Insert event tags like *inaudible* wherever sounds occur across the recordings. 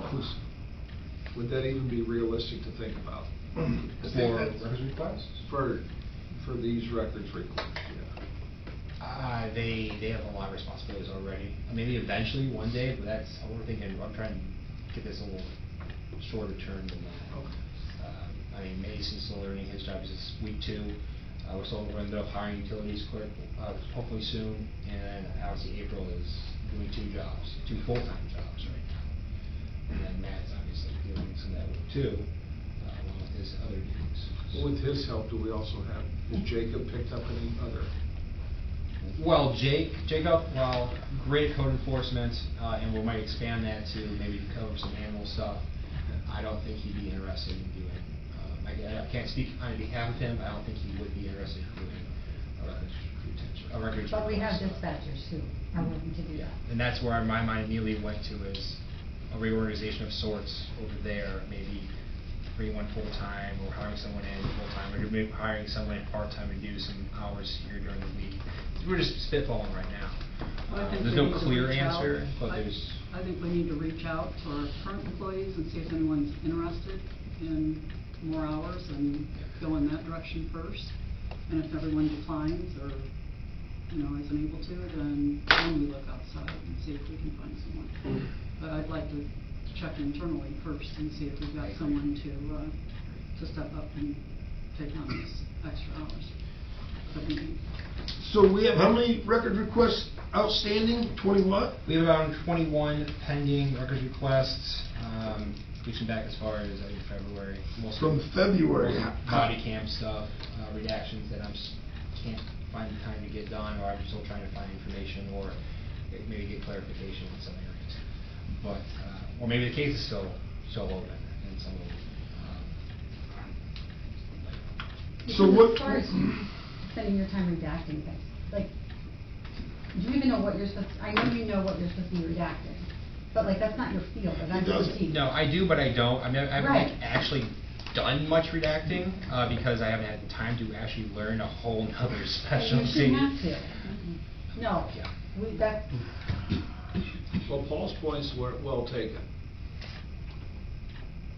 office, would that even be realistic to think about? Hmm. For records requests? For, for these records requests, yeah. Uh, they, they have a lot of responsibilities already. Maybe eventually, one day, but that's, I'm thinking, I'm trying to get this a little shorter term than that. Um, I mean, Mason's still learning his job, it's week two. Uh, we're still going to up hiring utilities quick, uh, hopefully soon. And obviously April is doing two jobs, two full-time jobs right now. And then Matt's obviously doing some of that work too, uh, along with his other duties. Well, With his help, do we also have, has Jacob picked up any other? Well, Jake, Jacob, well, great at code enforcement, uh, and we might expand that to maybe cover some animal stuff. I don't think he'd be interested in doing, um, I, I can't speak on behalf of him, but I don't think he would be interested in doing a records retention, a records. But we have request. dispatchers who are willing to do Yeah, that. and that's where my mind immediately went to is a reorganization of sorts over there, maybe bring one full-time, or hiring someone in full-time, or maybe hiring someone in part-time to do some hours here during the week. We're just spitballing right now. Well, I Uh, think There's we no need to clear reach out. answer, but I- there's, I think we need to reach out to our current employees and see if anyone's interested in more hours and go in that direction first. And if everyone declines or, you know, isn't able to, then then we look outside and see if we can find someone. But I'd like to check internally first and see if we've got someone to, uh, to step up and take on these extra hours that we need. So we have how many record requests outstanding? Twenty what? we have around twenty-one pending records requests, um, reaching back as far as, I think, February. Most of From them- February. body cam stuff, uh, redactions that I'm, s- can't find the time to get done, or I'm still trying to find information, or maybe get clarification in some areas. But, uh, or maybe the case is still, still open in some of them. So um, Because what- As far as you spending your time redacting things, like, do you even know what you're supposed, I know you know what you're supposed to be redacting, but like, that's not your field, of It doesn't. expertise. No, I do, but I don't. I mean, I haven't like Right. actually done much redacting, uh, because I haven't had the time to actually learn a whole nother *laughs* But specialty. You shouldn't have to. No, Yeah. we, that's, Well, Paul's points were well taken.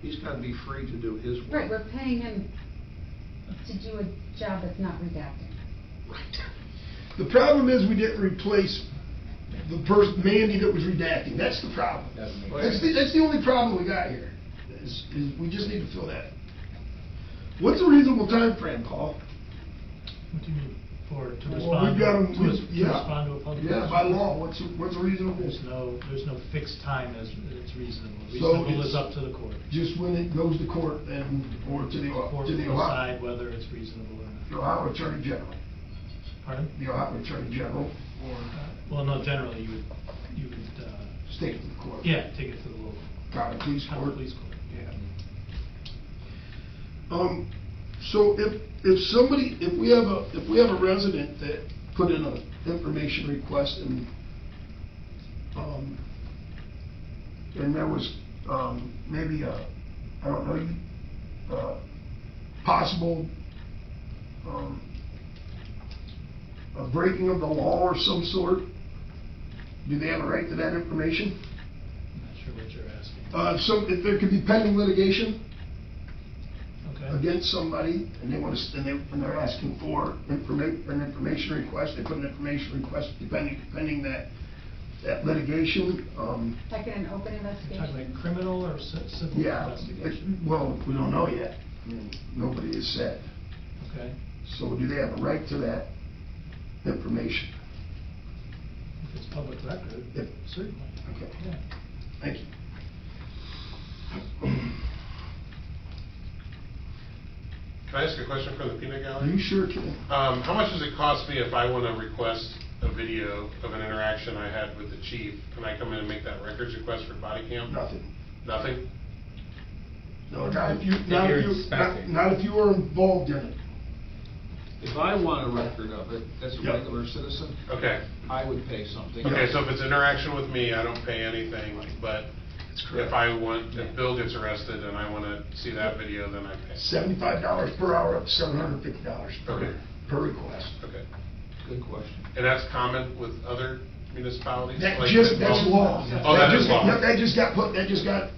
He's gotta be free to do his right, work. we're paying him to do a job that's not redacting. The problem is we didn't replace the person, Mandy that was redacting. That's the problem. Doesn't make That's the, that's the only problem we got here, is, is we just need to fill that. What's a reasonable time frame, Paul? What do you mean, for, to Well, respond, we've to got 'em- res- we- to yeah. respond to a public? Yeah, question? by law, what's, what's a reasonable? There's no, there's no fixed time as, it's reasonable. So Reasonable it's- is up to the court. Just when it goes to court and, or to the, Court to will the Ohio, decide whether it's reasonable or the not. Ohio Attorney General, Pardon? the Ohio Attorney General, or Well, no, generally, you would, you would, uh, state of the court. yeah, take it to the local, County police county court. police court. Yeah. Um, so if, if somebody, if we have a, if we have a resident that put in an information request and, um, and there was, um, maybe a, I don't know, you, uh, possible, um, a breaking of the law or some sort, do they have a right to that information? I'm not sure what you're asking. Uh, so if there could be pending litigation, Okay, against somebody, and they want to, and they, and they're asking for informa, an information request, they put an information request, depending, depending that, that litigation, um, Like in an open You're investigation. talking about criminal or ci- civil yeah, investigation? it- well, we don't know yet. I mean, Nobody has said. Okay, So do they have a right to that information? if it's public record, Yep. certainly, Okay, yeah. thank you. Can I ask a question from the peanut Are gallery? you sure, Ken? Um, how much does it cost me if I want to request a video of an interaction I had with the chief? Can I come in and make that records request for body cam? Nothing. Nothing? No, not if you, If not you're if you, not, expecting. not if you were involved in it. If I want a record of it, as a Yep. regular citizen, Okay. I would pay something. Okay, so if it's interaction with me, I don't pay anything, but That's if I want, if Bill gets arrested and I want to see that video, then I pay. Seventy-five dollars per hour, up to seven hundred and fifty dollars per, Okay. per request. Okay. Good question. And that's common with other municipalities? That Like just, that- that's law. Oh, that is just- law. That just got put, that just got